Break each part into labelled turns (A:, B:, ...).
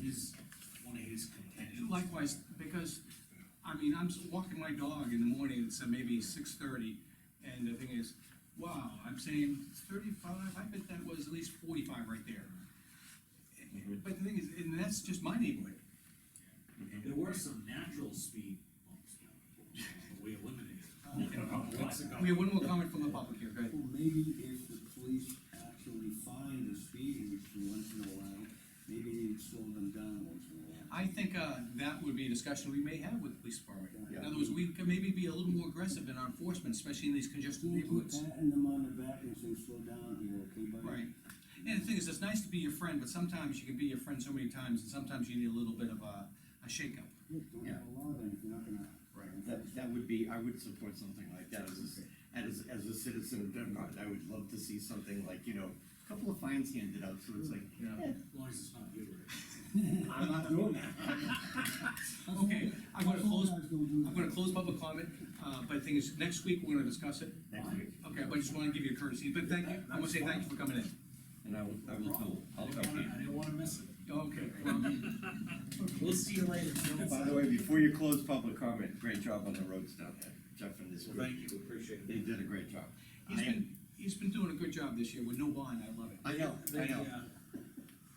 A: his, one of his contentions.
B: Likewise, because, I mean, I'm s- walking my dog in the morning, it's uh, maybe six thirty, and the thing is, wow, I'm saying thirty-five, I bet that was at least forty-five right there. But the thing is, and that's just my neighborhood,
A: There were some natural speed bumps, but we eliminated.
B: Okay.
A: Lots of-
B: we have one more comment from the public here, go ahead.
C: Well, maybe if the police actually find a speeding issue once in a while, maybe they'd slow them down once in a while.
B: I think, uh, that would be a discussion we may have with the police department. In
C: Yeah.
B: other words, we could maybe be a little more aggressive in our enforcement, especially in these congested neighborhoods.
C: Patting them on the back and say, slow down here, okay, buddy?
B: Right. And the thing is, it's nice to be your friend, but sometimes you can be your friend so many times, and sometimes you need a little bit of a, a shakeup.
C: Look, don't have a law then if you're not gonna.
D: That, that would be, I would support something like that as, a- as, as a citizen of Denmark, I would love to see something like, you know, a couple of fines handed out, so it's like,
B: Yeah.
A: As long as it's not you, right?
D: I'm not doing that.
B: Okay, I'm gonna close,
C: Guys don't do
B: I'm gonna
C: that.
B: close public comment, uh, but the thing is, next week, we're gonna discuss it.
D: Next week.
B: Okay, but I just wanna give you a courtesy, but thank you, I wanna say thank you for coming in.
D: And I will, I will tell,
A: I
D: I'll
A: didn't
D: tell
A: wanna,
D: Pete.
A: I didn't wanna miss it.
B: Okay, well,
A: We'll see you later.
D: By the way, before you close public comment, great job on the roads down there, Jeff and his
A: Well,
D: group.
A: thank you, appreciate
D: They
A: it.
D: did a great job.
B: he's
D: I am-
B: been, he's been doing a good job this year with no bond, I love it.
D: I know, I
A: They,
D: know.
A: uh,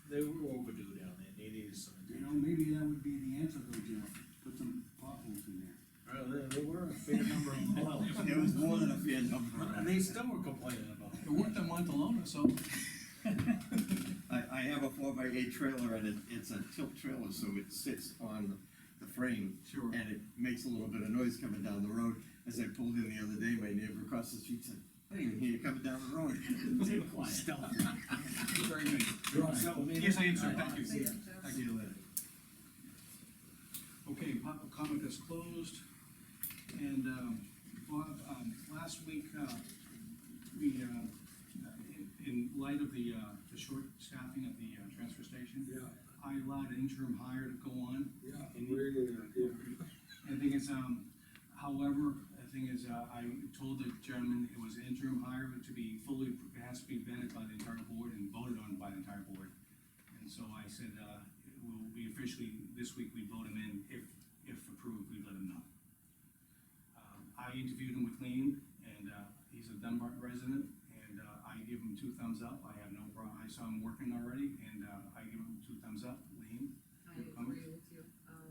A: They were overdue down there, they needed some.
C: You know, maybe that would be the answer though, Jeff, put some potholes in there.
A: Well, there, there Uh, were a fair number of miles.
D: It was more than a fair
A: And
D: number.
A: they still were complaining about it.
B: It worked on Montalona, so,
D: I, I have a four by eight trailer and it, it's a tilt trailer, so it sits on the frame.
B: Sure.
D: And it makes a little bit of noise coming down the road. As I pulled in the other day, my neighbor across the street said, I didn't even hear you coming down the road.
A: They were quiet.
B: very good.
A: You're all set with me?
B: Yes, I am, sir, thank
A: See
B: you.
A: ya.
D: Talk to you later.
B: Okay, public comment is closed, and, um, Bob, um, last week, uh, we, uh, in, in light of the, uh, the short staffing at the, uh, transfer station.
E: Yeah,
B: I allowed an interim hire to go on,
E: yeah, we're gonna, yeah.
B: and the thing is, um, however, the thing is, uh, I told the gentleman it was interim hire to be fully, it has to be vetted by the entire board and voted on by the entire board. And so I said, uh, we'll be officially, this week we vote him in, if, if approved, we let him know. Um, I interviewed him with Lean, and, uh, he's a Dunbar resident, and, uh, I give him two thumbs up, I have no problem, I saw him working already, and, uh, I give him two thumbs up, Lean,
F: I
B: Your comments?
F: agree with you. Um,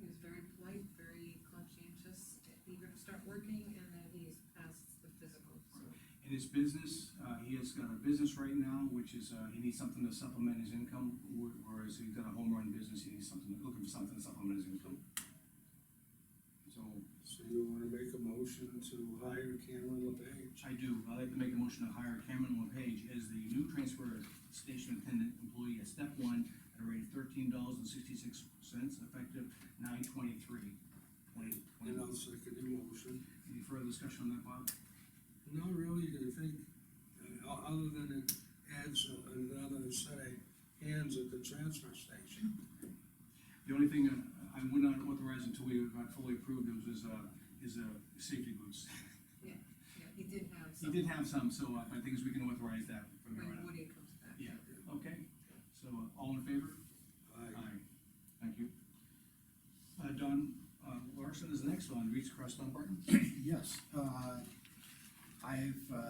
F: he was very polite, very conscientious, eager to start working, and then he's passed the physical, so.
B: in his business, uh, he has got a business right now, which is, uh, he needs something to supplement his income, wh- whereas he's got a home run business, he needs something, looking for something to supplement his income. So,
E: So you wanna make a motion to hire Cameron LePage?
B: I do, I'd like to make a motion to hire Cameron LePage as the new transfer station attendant employee at step one at a rate of thirteen dollars and sixty-six cents, effective nine twenty-three, twenty
E: And
B: twenty.
E: I'll second your motion.
B: Any further discussion on that, Bob?
E: Not really, I think, uh, o- other than it adds a- another set of hands at the transfer station.
B: The only thing uh, I, I would not authorize until we got fully approved was his, uh, his, uh, safety boots.
F: Yeah, he did have
B: He
F: some,
B: did have some, so uh, I think we can authorize that from here
F: when
B: on out.
F: Woody comes back.
B: Yeah, okay, so uh, all in favor?
E: I,
B: Thank you. Uh, Don uh, Larson is the next one, reach across Dunbarton.
G: Yes, uh, I've, uh,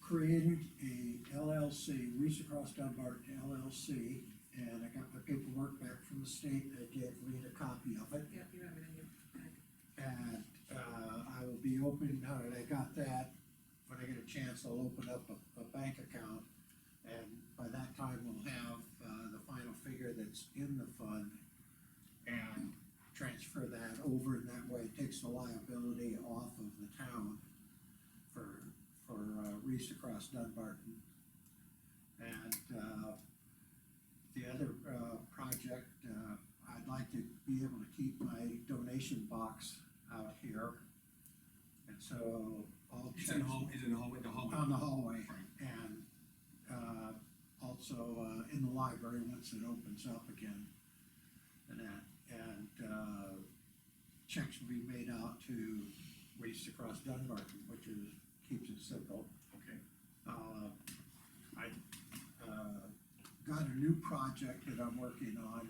G: created a LLC, Reese Across Dunbarton LLC, and I got my paperwork back from the state, I gave Lean a copy of it,
F: Yeah, you have it in your packet.
G: and, uh, I will be open, now that I got that, when I get a chance, I'll open up a, a bank account, and by that time, we'll have, uh, the final figure that's in the fund, and transfer that over, and that way it takes the liability off of the town for, for, uh, Reese across Dunbarton. And, uh, the other, uh, project, uh, I'd like to be able to keep my donation box out here. And so I'll.
B: It's in the
G: check-
A: Oh,
B: hall, it's in the hallway, the hallway.
G: on the hallway, and, uh, also, uh, in the library, once it opens up again. And that, and, uh, checks will be made out to Waste Across Dunbarton, which is, keeps it simple.
B: Okay.
G: Uh, I, uh, got a new project that I'm working on